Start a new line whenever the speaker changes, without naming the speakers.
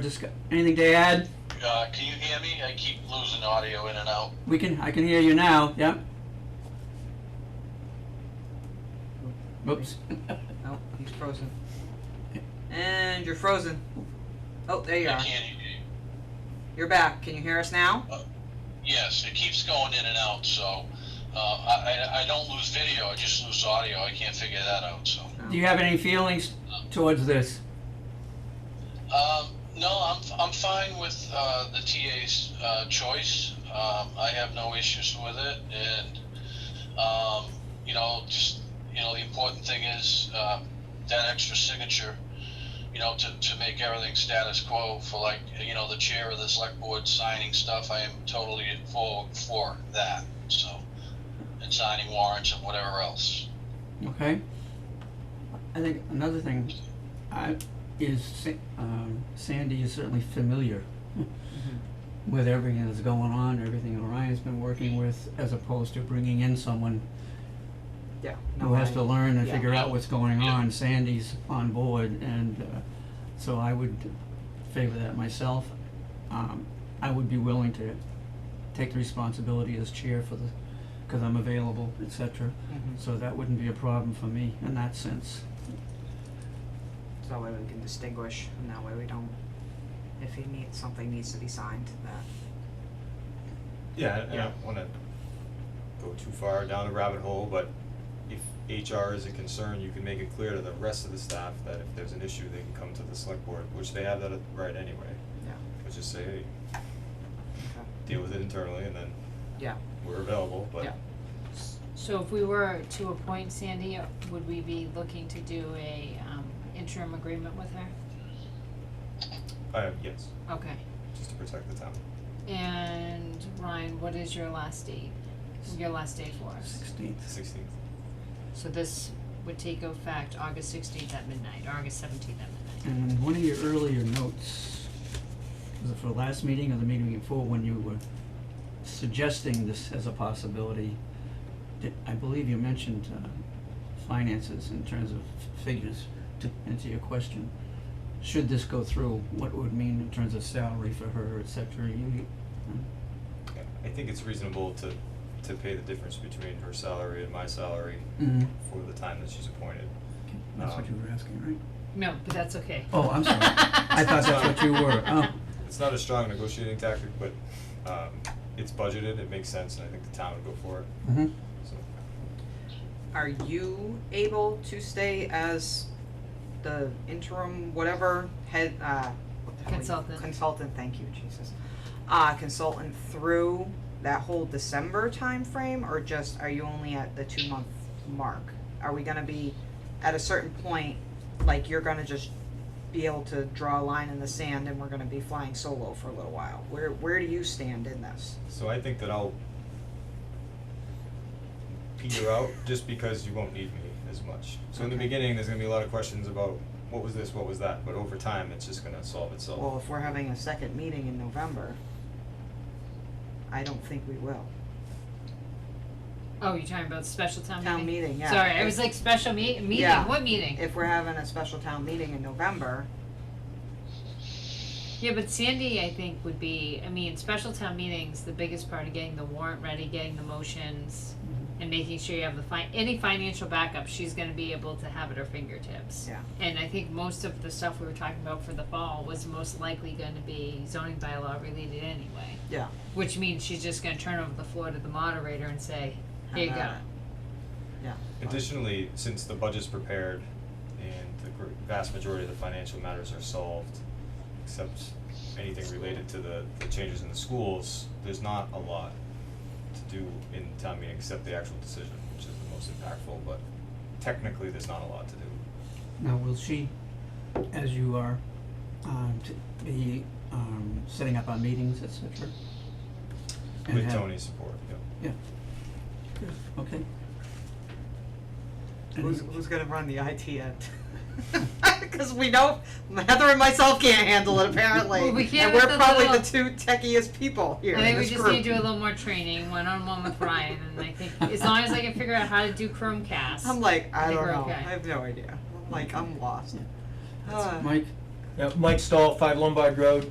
Just got- anything to add?
Uh, can you hear me? I keep losing audio in and out.
We can, I can hear you now, yep. Whoops.
Oh, he's frozen. And you're frozen. Oh, there you
I
are.
can't hear you.
You're back. Can you hear us now?
Yes, it keeps going in and out, so uh, I, I, I don't lose video, I just lose audio. I can't figure that out, so.
Do you have any feelings towards this?
Um, no, I'm, I'm fine with uh, the TA's uh, choice. Um, I have no issues with it, and um, you know, just you know, the important thing is um, that extra signature. You know, to, to make everything status quo for like you know the chair of the select board signing stuff. I am totally for for that. So, and signing warrants and whatever else.
Okay. I think another thing, I, is Sa- um, Sandy is certainly familiar with everything that's going on, everything Orion's been working with, as opposed to bringing in someone
Yeah.
who has to learn and
yeah.
figure out what's going
Yeah.
on. Sandy's on board, and uh, so I would favor that myself. Um, I would be willing to take the responsibility as chair for the, because I'm available, et cetera.
Mhm.
So that wouldn't be a problem for me in that sense.
So that way we can distinguish, and that way we don't. If he needs something needs to be signed, that
Yeah, I- I
Yeah.
don't wanna go too far down the rabbit hole, but if HR is a concern, you can make it clear to the rest of the staff that if there's an issue, they can come to the select board, which they have that right anyway.
Yeah.
But just say, hey,
okay.
deal with it internally and then
Yeah.
we're available, but
Yeah.
So if we were to appoint Sandy, would we be looking to do a um interim agreement with her?
uh, yes,
Okay,
just to protect the town.
and Ryan, what is your last date, your last day for us?
Sixteenth.
Sixteenth.
So this would take effect August sixteenth at midnight, August seventeenth at midnight.
And one of your earlier notes, was it for last meeting or the meeting before, when you were suggesting this as a possibility, did, I believe you mentioned, uh, finances in terms of f- figures to answer your question. Should this go through, what it would mean in terms of salary for her, et cetera, you,
I think it's reasonable to, to pay the difference between her salary and my salary
mm
for the time that she's appointed.
that's what you were asking, right?
No, but that's okay.
Oh, I'm sorry. I thought that's what you were, oh,
It's not a strong negotiating tactic, but, um, it's budgeted, it makes sense, and I think the town would go for it,
mhm.
so.
Are you able to stay as the interim whatever head uh what the hell are you-
Consultant.
Consultant, thank you, Jesus. Uh consultant through that whole December timeframe or just are you only at the two month mark? Are we gonna be at a certain point, like you're gonna just be able to draw a line in the sand and we're gonna be flying solo for a little while? Where where do you stand in this?
So I think that I'll peter out just because you won't need me as much. So in the
Okay.
beginning, there's gonna be a lot of questions about what was this, what was that, but over time, it's just gonna solve itself.
Well, if we're having a second meeting in November, I don't think we will.
Oh, you're talking about special town meeting?
Town meeting, yeah.
Sorry, I was like, special meet, meeting,
Yeah.
what meeting?
If we're having a special town meeting in November,
Yeah, but Sandy, I think, would be, I mean, special town meetings, the biggest part of getting the warrant ready, getting the motions,
Mm-hmm.
and making sure you have the fi- any financial backup, she's gonna be able to have at her fingertips.
Yeah.
And I think most of the stuff we were talking about for the fall was most likely gonna be zoning bylaw related anyway.
Yeah.
Which means she's just gonna turn over the floor to the moderator and say, here you
Have
go.
at
Additionally, since the budget's prepared and the gr- vast majority of the financial matters are solved, except anything related to the, the changes in the schools, there's not a lot to do in town meeting except the actual decision, which is the most impactful, but technically, there's not a lot to do.
Now, will she, as you are, um, t- be, um, setting up our meetings, et cetera? And
With
have-
Tony's support, yeah.
Okay.
who's, who's gonna run the IT end? Cause we know Heather and myself can't handle it apparently.
Well, we can't
And we're
with the
probably the two
little-
techiest people here
I
in
think we
this
just
group.
need to do a little more training, one on one with Ryan, and I think as long as I can figure out how to do Chromecast.
I'm like, I
think
don't
we're
know,
okay.
I have no idea, I'm like, I'm lost.
That's-
Uh,
Mike,
Yeah, Mike Stahl, Five Lombard Road.